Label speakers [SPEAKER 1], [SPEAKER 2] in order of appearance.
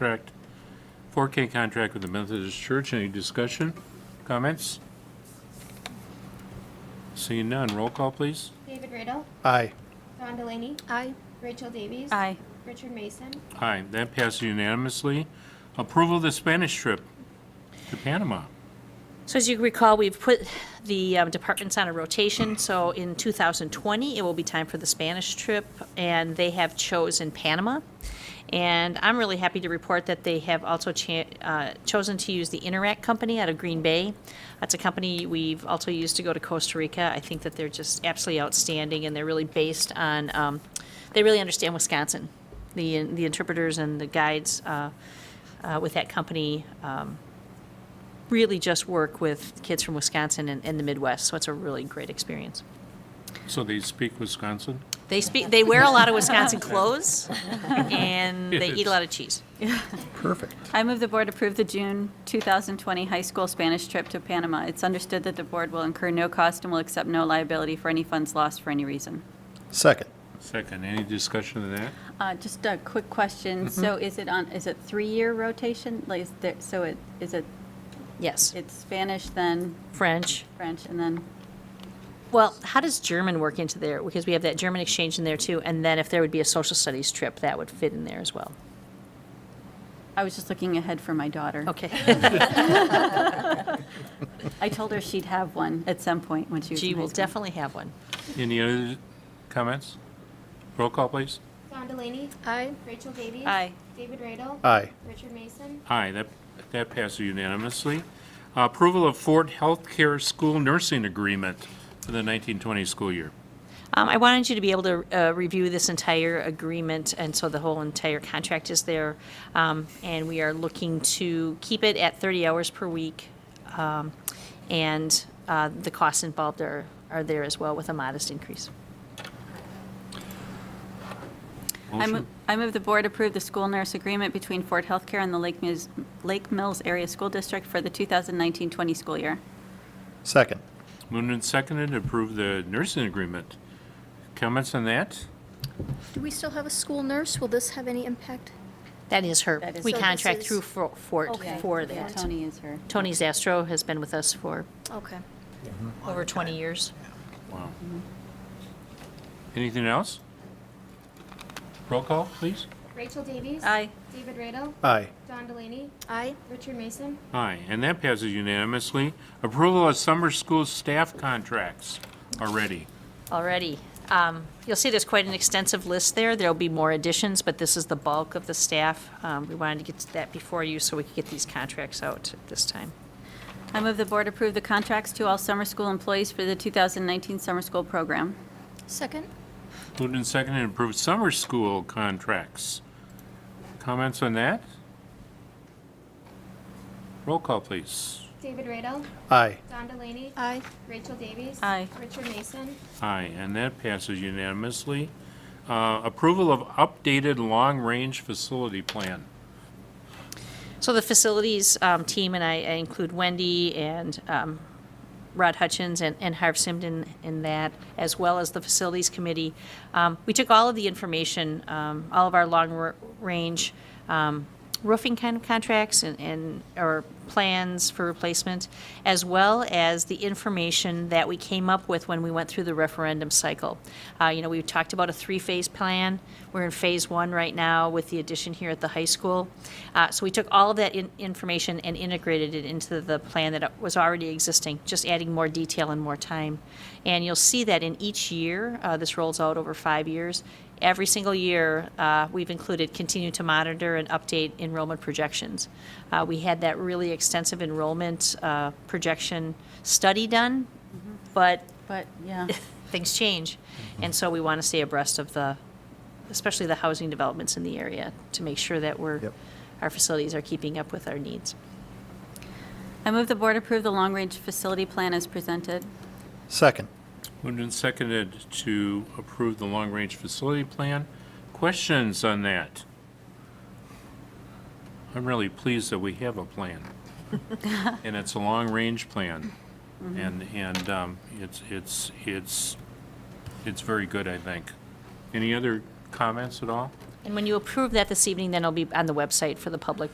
[SPEAKER 1] contract, 4K contract with the Methodist Church. Any discussion, comments? Seeing none, roll call, please.
[SPEAKER 2] David Riddle,
[SPEAKER 3] Aye.
[SPEAKER 2] Don Delaney,
[SPEAKER 4] Aye.
[SPEAKER 2] Rachel Davies.
[SPEAKER 4] Aye.
[SPEAKER 2] Richard Mason,
[SPEAKER 1] Aye, that passes unanimously. Approval of the Spanish trip to Panama.
[SPEAKER 4] So as you recall, we've put the um, departments on a rotation, so in 2020, it will be time for the Spanish trip, and they have chosen Panama. And I'm really happy to report that they have also cha- uh, chosen to use the Interact Company out of Green Bay. That's a company we've also used to go to Costa Rica. I think that they're just absolutely outstanding, and they're really based on, um, they really understand Wisconsin, the the interpreters and the guides uh, uh, with that company um, really just work with kids from Wisconsin and, and the Midwest, so it's a really great experience.
[SPEAKER 1] So they speak Wisconsin?
[SPEAKER 4] They speak, they wear a lot of Wisconsin clothes, and they eat a lot of cheese.
[SPEAKER 3] Perfect.
[SPEAKER 5] I move the board approve the June 2020 high school Spanish trip to Panama. It's understood that the board will incur no cost and will accept no liability for any funds lost for any reason.
[SPEAKER 3] Second.
[SPEAKER 1] Second, any discussion of that?
[SPEAKER 5] Uh, Just a quick question. So is it on, is it three-year rotation? Like, is there, so it, is it,
[SPEAKER 4] Yes,
[SPEAKER 5] it's Spanish, then
[SPEAKER 4] French.
[SPEAKER 5] French, and then,
[SPEAKER 4] Well, how does German work into there? Because we have that German exchange in there too, and then if there would be a social studies trip, that would fit in there as well.
[SPEAKER 5] I was just looking ahead for my daughter.
[SPEAKER 4] Okay,
[SPEAKER 5] I told her she'd have one at some point when she was in
[SPEAKER 4] G
[SPEAKER 5] high
[SPEAKER 4] will
[SPEAKER 5] school.
[SPEAKER 4] definitely have one.
[SPEAKER 1] Any other comments? Roll call, please.
[SPEAKER 2] Don Delaney.
[SPEAKER 4] Aye.
[SPEAKER 2] Rachel Davies.
[SPEAKER 4] Aye.
[SPEAKER 2] David Riddle.
[SPEAKER 3] Aye.
[SPEAKER 2] Richard Mason,
[SPEAKER 1] Aye, that, that passes unanimously. Approval of Fort Healthcare School Nursing Agreement for the 1920 school year.
[SPEAKER 4] Um, I wanted you to be able to uh, review this entire agreement, and so the whole entire contract is there. Um, And we are looking to keep it at 30 hours per week. um, And uh, the costs involved are, are there as well with a modest increase.
[SPEAKER 5] I mo-
[SPEAKER 1] Motion?
[SPEAKER 5] I move the board approve the school nurse agreement between Ford Healthcare and the Lake Mills, Lake Mills Area School District for the 2019-20 school year.
[SPEAKER 3] Second.
[SPEAKER 1] Moved and seconded, to approve the nursing agreement. Comments on that?
[SPEAKER 6] Do we still have a school nurse? Will this have any impact?
[SPEAKER 4] That is her,
[SPEAKER 5] That is-
[SPEAKER 4] we
[SPEAKER 6] So this
[SPEAKER 4] contract
[SPEAKER 6] is-
[SPEAKER 4] through Fort Fort for that.
[SPEAKER 5] Tony is her.
[SPEAKER 4] Tony Zastro has been with us for
[SPEAKER 6] Okay.
[SPEAKER 4] over 20 years.
[SPEAKER 1] Wow. Anything else? Roll call, please.
[SPEAKER 2] Rachel Davies.
[SPEAKER 5] Aye.
[SPEAKER 2] David Riddle,
[SPEAKER 3] Aye.
[SPEAKER 2] Don Delaney,
[SPEAKER 6] Aye.
[SPEAKER 2] Richard Mason,
[SPEAKER 1] Aye, and that passes unanimously. Approval of summer school staff contracts already.
[SPEAKER 4] Alrighty. Um, You'll see there's quite an extensive list there. There'll be more additions, but this is the bulk of the staff. Um, We wanted to get to that before you so we could get these contracts out at this time.
[SPEAKER 5] I move the board approve the contracts to all summer school employees for the 2019 summer school program.
[SPEAKER 6] Second?
[SPEAKER 1] Moved and seconded, to approve summer school contracts. Comments on that? Roll call, please.
[SPEAKER 2] David Riddle,
[SPEAKER 3] Aye.
[SPEAKER 2] Don Delaney,
[SPEAKER 6] Aye.
[SPEAKER 2] Rachel Davies.
[SPEAKER 5] Aye.
[SPEAKER 2] Richard Mason,
[SPEAKER 1] Aye, and that passes unanimously. Uh, Approval of updated long-range facility plan.
[SPEAKER 4] So the facilities um, team, and I I include Wendy and um, Rod Hutchins and, and Harv Simden in that, as well as the Facilities Committee. Um, we took all of the information, um, all of our long-range um, roofing kind of contracts and, and, or plans for replacement, as well as the information that we came up with when we went through the referendum cycle. Uh, you know, we talked about a three-phase plan. We're in phase one right now with the addition here at the high school. Uh, so we took all of that in, information and integrated it into the plan that was already existing, just adding more detail and more time. And you'll see that in each year, uh, this rolls out over five years. Every single year, uh, we've included continue to monitor and update enrollment projections. Uh, we had that really extensive enrollment uh, projection study done, but
[SPEAKER 5] But, yeah,
[SPEAKER 4] things change. And so we want to stay abreast of the, especially the housing developments in the area, to make sure that we're,
[SPEAKER 3] Yep.
[SPEAKER 4] our facilities are keeping up with our needs.
[SPEAKER 5] I move the board approve the long-range facility plan as presented.
[SPEAKER 3] Second.
[SPEAKER 1] Moved and seconded to approve the long-range facility plan. Questions on that? I'm really pleased that we have a plan. And it's a long-range plan. And, and um, it's, it's, it's, it's very good, I think. Any other comments at all?
[SPEAKER 4] And when you approve that this evening, then it'll be on the website for the public